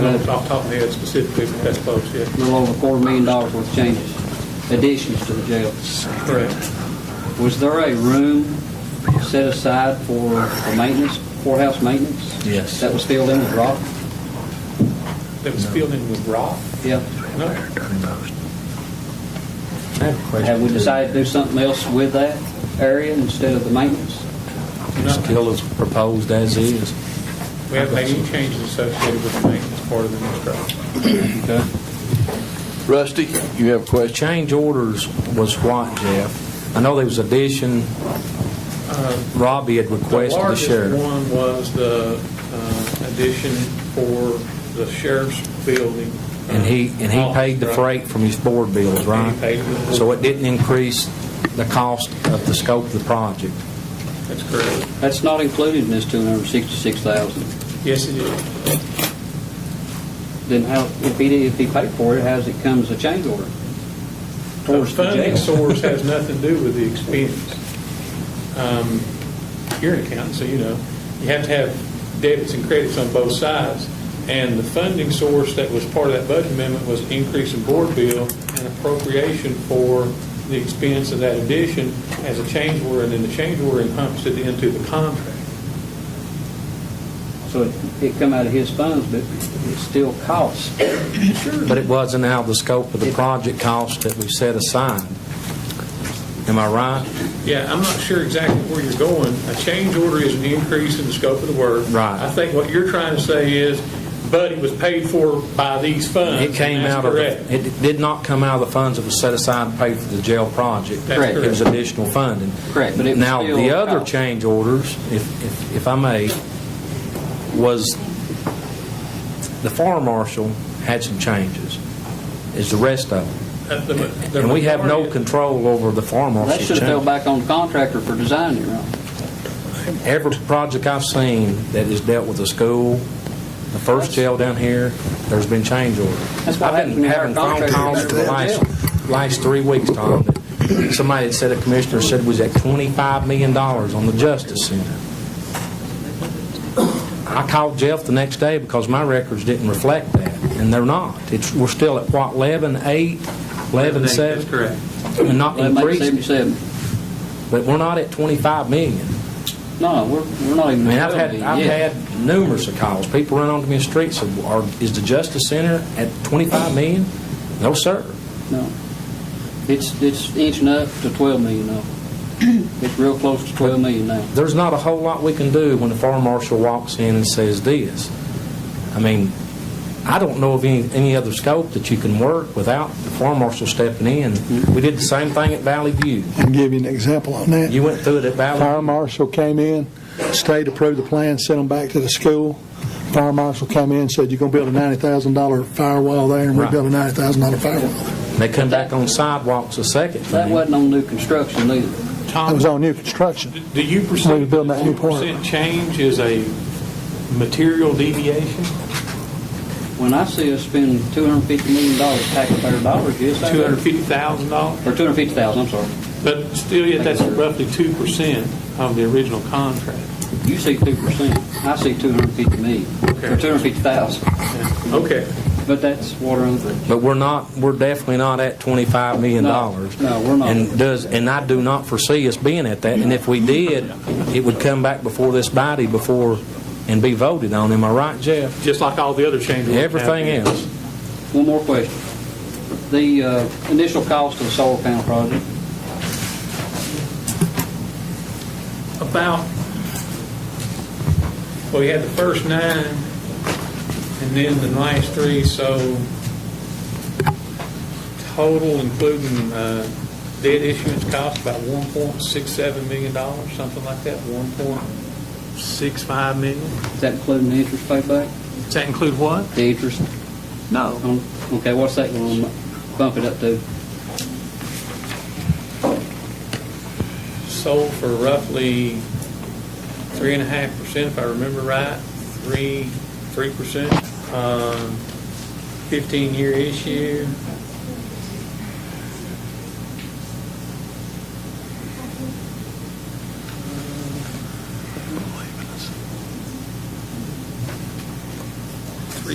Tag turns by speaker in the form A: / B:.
A: Off the top of my head specifically for Best Post, yeah,
B: a little over a quarter million dollars worth of changes, additions to the jail.
A: correct.
B: Was there a room set aside for for maintenance, courthouse maintenance?
C: Yes.
B: That was filled in with rock?
A: That was filled in with rock?
B: Yeah.
A: No,
C: I have a question.
B: Have we
C: too.
B: decided to do something else with that area instead of the maintenance?
A: no.
C: Still as proposed as is.
A: We haven't made any changes associated with the maintenance part of the new structure.
C: Okay.
D: Rusty, you have a question?
C: Change orders was what, Jeff? I know there was addition, Robbie had requested the
A: The
C: sheriff.
A: largest one was the uh, addition for the sheriff's building.
C: And he, and he
A: Office,
C: paid the
A: Oh, right?
C: freight from his board bills, right?
A: paid it.
C: So it didn't increase the cost of the scope of the project.
A: That's correct.
B: That's not included in this 266,000.
A: Yes, it is.
B: Then how, if he, did- if he paid for it, how does it come as a change order?
A: The
B: Towards the
A: funding
B: jail?
A: source has nothing to do with the expense. Um, You're an accountant, so you know, you have to have debits and credits on both sides. And the funding source that was part of that budget amendment was increase in board bill and appropriation for the expense of that addition as a change order, and then the change order encompassed it into the contract.
B: So it- it come out of his funds, but it still costs.
C: But it wasn't out of the scope of the project cost that we set aside. Am I right?
A: Yeah, I'm not sure exactly where you're going. A change order is an increase in the scope of the work.
C: Right.
A: I think what you're trying to say is, but it was paid for by these funds.
C: It came
A: and that's
C: out of,
A: correct.
C: the- it did not come out of the funds that was set aside to pay for the jail project.
A: That's Correct.
C: It was additional funding.
B: Correct, but it was
C: Now, the
B: still-
C: other change orders, if, if- if I may, was the fire marshal had some changes, is the rest of them.
A: That the- the
C: And we have no
A: majority-
C: control over the fire
B: That
C: marshal's
B: should have fell
C: change.
B: back on the contractor for designing it, right?
C: Every project I've seen that has dealt with the school, the first jail down here, there's been change orders.
B: That's what
C: I've been
B: happens when
C: having
B: our
C: phone calls
B: contractors
C: for the
B: go to
C: last, last three weeks, Tom. that Somebody had said, a commissioner said, was at $25 million on the Justice Center. I called Jeff the next day because my records didn't reflect that, and they're not. It's, we're still at, what, 11, 8, 11,
A: That's
C: 7?
A: correct.
C: And not
B: That makes
C: increasing,
B: 77.
C: but we're not at 25 million.
B: No, we're, we're not
C: I
B: even.
C: mean, I've
B: twelve
C: had,
B: million
C: I've
B: yet.
C: had numerous of calls. People run onto me in the streets, and said, "Are- is the Justice Center at 25 million? No, sir.
B: No. It's, it's inching up to 12 million now. It's real close to 12 million now.
C: there's not a whole lot we can do when the fire marshal walks in and says this. I mean, I don't know of any, any other scope that you can work without the fire marshal stepping in. We did the same thing at Valley View.
E: and give you an example on that.
C: You went through it at
E: Fire
C: Valley.
E: marshal came in, state approved the plan, sent them back to the school. Fire marshal came in, said, you're going to build a $90,000 firewall there, and we
C: Right.
E: built a $90,000 firewall.
C: They come back on sidewalks a second
B: That
C: time.
B: wasn't on new construction either.
E: That
A: Tom,
E: was on new construction.
A: do you
E: We were
A: perceive
E: building
A: that
E: that new
A: two
E: park.
A: percent change is a material deviation?
B: When I see us spend $250 million taxpayer dollars, yes, I
A: Two hundred
B: do.
A: fifty thousand dollars?
B: Or 250,000, I'm sorry.
A: But still, yet that's roughly two percent of the original contract.
B: You see 2%, I see 250 million, or
A: Okay.
B: 250,000.
A: Okay.
B: But that's water under the
C: But we're not, we're definitely not at $25 million.
B: No, no, we're not.
C: And does, and I do not foresee us being at that. And if we did, it would come back before this body before, and be voted on. Am I right, Jeff?
A: Just like all the other changes.
C: Everything else.
B: One more question. The uh, initial cost of the solar panel project,
A: about, well, we had the first nine, and then the last three, so total, including uh, debt issuance cost, about $1.67 million, something like that, 1.65 million.
B: is that including the interest payback?
A: Does that include what?
B: The interest?
A: No.
B: on- Okay, what's that going to bump it up to?
A: Sold for roughly 3.5%, if I remember right, 3, 3%. um, 15-year issue.